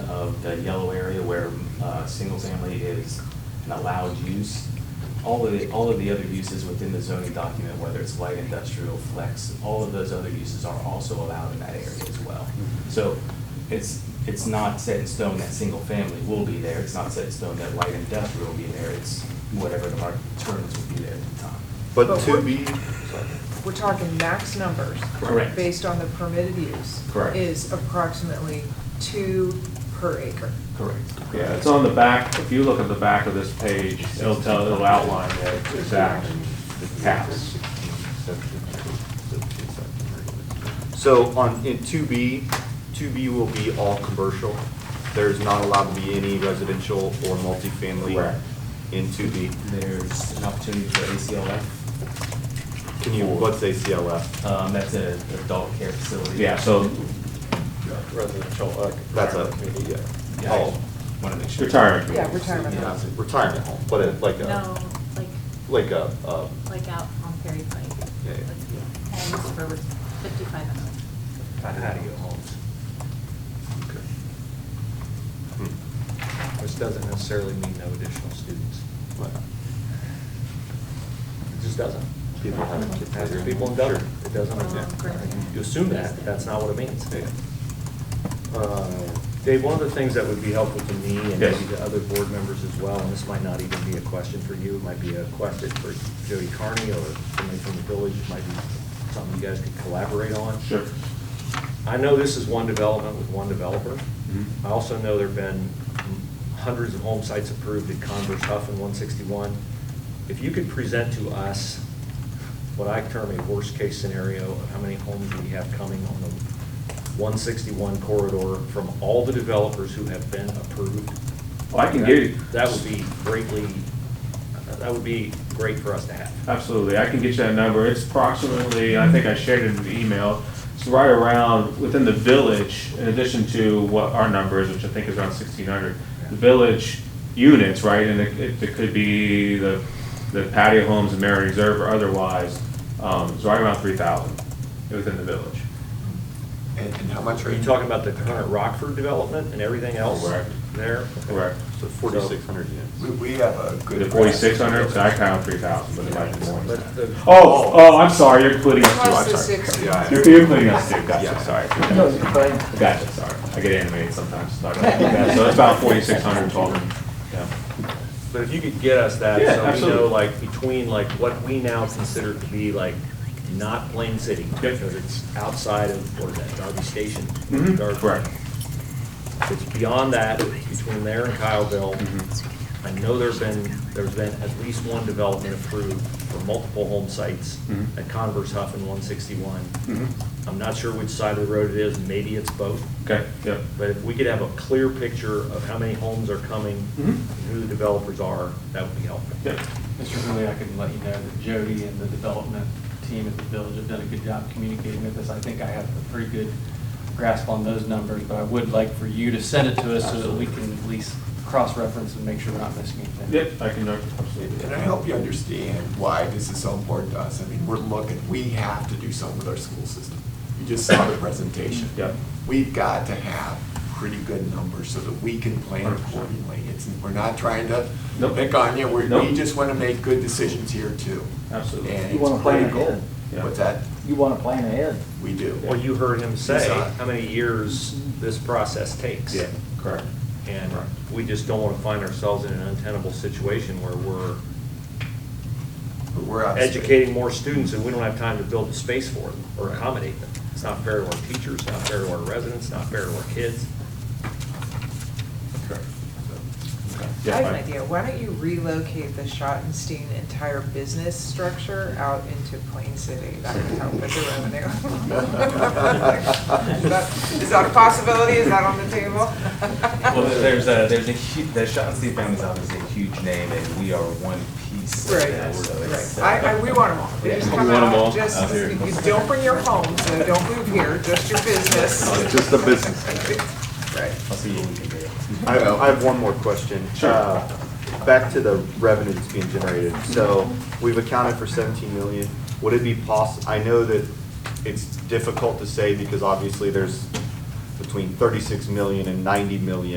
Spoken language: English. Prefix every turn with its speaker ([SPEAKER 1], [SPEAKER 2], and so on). [SPEAKER 1] of the yellow area where uh, single-family is an allowed use. All of, the- all of the other uses within the zoning document, whether it's light industrial, flex, all of those other uses are also allowed in that area as well. So it's, it's not set in stone that single-family will be there, it's not set in stone that light industrial will be there, it's whatever the market determines will be there at the time.
[SPEAKER 2] But
[SPEAKER 3] But
[SPEAKER 2] to
[SPEAKER 3] what-
[SPEAKER 2] be,
[SPEAKER 3] We're talking max numbers.
[SPEAKER 1] Correct.
[SPEAKER 3] Based on the permitted use.
[SPEAKER 1] Correct.
[SPEAKER 3] Is approximately two per acre.
[SPEAKER 1] Correct.
[SPEAKER 4] Yeah, it's on the back, if you look at the back of this page, it'll tell, it'll outline the exact caps.
[SPEAKER 2] so on, in two B, two B will be all commercial. There's not allowed to be any residential or multifamily
[SPEAKER 4] Correct.
[SPEAKER 2] in two B.
[SPEAKER 1] There's an opportunity for ACLF
[SPEAKER 2] Can you, what's ACLF?
[SPEAKER 1] Um, that's a an adult care facility.
[SPEAKER 4] Yeah, so
[SPEAKER 5] residential. uh,
[SPEAKER 2] That's a,
[SPEAKER 5] community.
[SPEAKER 2] yeah.
[SPEAKER 1] Yeah, I
[SPEAKER 2] Oh,
[SPEAKER 1] want to make sure.
[SPEAKER 4] retirement.
[SPEAKER 3] Yeah, retirement
[SPEAKER 2] yeah,
[SPEAKER 3] home.
[SPEAKER 2] retirement home, but it, like
[SPEAKER 6] No,
[SPEAKER 2] a,
[SPEAKER 6] like,
[SPEAKER 2] like a, uh,
[SPEAKER 6] like out on Perry Pike.
[SPEAKER 2] Yeah, yeah.
[SPEAKER 6] Like, Homes for fifty-five and up.
[SPEAKER 1] Patio homes.
[SPEAKER 2] hmm,
[SPEAKER 5] Which doesn't necessarily mean no additional students.
[SPEAKER 2] like,
[SPEAKER 5] It just doesn't.
[SPEAKER 2] people having kids.
[SPEAKER 5] As
[SPEAKER 2] later in
[SPEAKER 5] people in
[SPEAKER 2] life.
[SPEAKER 5] Dublin, it doesn't.
[SPEAKER 6] Well,
[SPEAKER 2] yeah.
[SPEAKER 6] grandparents.
[SPEAKER 5] You assume that, that's not what it means. Uh, Dave, one of the things that would be helpful to me and
[SPEAKER 4] Yes.
[SPEAKER 5] maybe to other board members as well, and this might not even be a question for you, it might be a question for Jody Carney or somebody from the village, it might be something you guys could collaborate on.
[SPEAKER 4] Sure.
[SPEAKER 5] I know this is one development with one developer.
[SPEAKER 4] Mhm.
[SPEAKER 5] I also know there've been hundreds of home sites approved at Converse Huff and one sixty-one. If you could present to us what I term a worst-case scenario of how many homes we have coming on the one sixty-one corridor from all the developers who have been approved.
[SPEAKER 4] Well, I can give you.
[SPEAKER 5] That would be greatly, that would be great for us to have.
[SPEAKER 4] Absolutely, I can get you that number. It's approximately, I think I shared it in the email, it's right around, within the village, in addition to what our number is, which I think is around sixteen hundred, the village units, right, and it, it- it could be the, the patio homes, the Marin Reserve or otherwise, um, it's right around three thousand within the village.
[SPEAKER 7] And, and how much
[SPEAKER 5] Are
[SPEAKER 7] are
[SPEAKER 5] you
[SPEAKER 7] you?
[SPEAKER 5] talking about the current Rockford development and everything else
[SPEAKER 4] Correct.
[SPEAKER 5] there?
[SPEAKER 4] Correct.
[SPEAKER 2] So forty-six hundred units.
[SPEAKER 7] We, we have a good.
[SPEAKER 4] The forty-six hundred, so I count three thousand, but it might be more than
[SPEAKER 5] But
[SPEAKER 4] that.
[SPEAKER 5] the-
[SPEAKER 4] Oh, oh, I'm sorry, you're including us too,
[SPEAKER 3] Plus
[SPEAKER 4] I'm
[SPEAKER 3] the
[SPEAKER 4] sorry.
[SPEAKER 3] six.
[SPEAKER 2] Yeah,
[SPEAKER 4] You're, you're including us too,
[SPEAKER 2] Yeah.
[SPEAKER 4] gotcha, sorry. Gotcha, sorry. I get animated sometimes. Sorry about that. So it's about forty-six hundred total.
[SPEAKER 5] But if you could get us that,
[SPEAKER 4] Yeah,
[SPEAKER 5] so we
[SPEAKER 4] absolutely.
[SPEAKER 5] know, like, between, like, what we now consider to be, like, not Plain City, because it's outside of, what is that, Darby Station?
[SPEAKER 4] Mhm,
[SPEAKER 5] Darby.
[SPEAKER 4] correct.
[SPEAKER 5] It's beyond that, between there and Kyleville.
[SPEAKER 4] Mhm.
[SPEAKER 5] I know there's been, there's been at least one development approved for multiple home sites
[SPEAKER 4] Mhm.
[SPEAKER 5] at Converse Huff and one sixty-one.
[SPEAKER 4] Mhm.
[SPEAKER 5] I'm not sure which side of the road it is, maybe it's both.
[SPEAKER 4] Okay, yep.
[SPEAKER 5] But if we could have a clear picture of how many homes are coming,
[SPEAKER 4] Mhm.
[SPEAKER 5] who the developers are, that would be helpful.
[SPEAKER 4] Yep.
[SPEAKER 8] Mr. Hurley, I can let you know that Jody and the development team at the village have done a good job communicating with us. I think I have a pretty good grasp on those numbers, but I would like for you to send it to us so that we can at least cross-reference and make sure we're not missing anything.
[SPEAKER 4] Yep, I can, uh,
[SPEAKER 7] Can
[SPEAKER 4] absolutely.
[SPEAKER 7] I help you understand why this is so important to us? I mean, we're looking, we have to do something with our school system. You just saw the presentation.
[SPEAKER 4] Yep.
[SPEAKER 7] We've got to have pretty good numbers so that we can plan
[SPEAKER 4] 100%.
[SPEAKER 7] accordingly. It's, we're not trying to
[SPEAKER 4] Nope.
[SPEAKER 7] pick on you, we,
[SPEAKER 4] Nope.
[SPEAKER 7] we just want to make good decisions here too.
[SPEAKER 4] Absolutely.
[SPEAKER 7] And
[SPEAKER 9] You wanna
[SPEAKER 7] it's
[SPEAKER 9] plan
[SPEAKER 7] critical.
[SPEAKER 9] ahead.
[SPEAKER 4] Yeah.
[SPEAKER 7] What's that?
[SPEAKER 9] You want to plan ahead.
[SPEAKER 7] We do.
[SPEAKER 5] Well, you heard him say
[SPEAKER 7] Yes, I-
[SPEAKER 5] how many years this process takes.
[SPEAKER 4] Yeah, correct.
[SPEAKER 5] And we just don't want to find ourselves in an untenable situation where we're
[SPEAKER 7] We're out of space.
[SPEAKER 5] educating more students and we don't have time to build a space for them or accommodate them. It's not fair to our teachers, not fair to our residents, not fair to our kids.
[SPEAKER 4] Correct.
[SPEAKER 7] Okay.
[SPEAKER 4] Yeah,
[SPEAKER 3] I have
[SPEAKER 4] I-
[SPEAKER 3] an idea. Why don't you relocate the Schottenstein entire business structure out into Plain City? That would help with the revenue. Is that- Is that a possibility? Is that on the table?
[SPEAKER 1] Well, there- there's a, there's a huge, the Shaughnessy family is obviously a huge name, and we are one piece of
[SPEAKER 3] Right,
[SPEAKER 1] that, so it's.
[SPEAKER 3] right.
[SPEAKER 1] uh,
[SPEAKER 3] I, I, we want them all. They just
[SPEAKER 4] We
[SPEAKER 3] come
[SPEAKER 4] want 'em all
[SPEAKER 3] out, just,
[SPEAKER 1] out here.
[SPEAKER 3] you don't bring your home, so don't move here, just your business.
[SPEAKER 2] Just the business.
[SPEAKER 3] Right.
[SPEAKER 1] I'll see what we can do.
[SPEAKER 2] I have, I have one more question.
[SPEAKER 4] Sure.
[SPEAKER 2] Uh, Back to the revenue that's being generated. So we've accounted for 17 million. Would it be possible, I know that it's difficult to say because obviously there's between 36 million and 90 million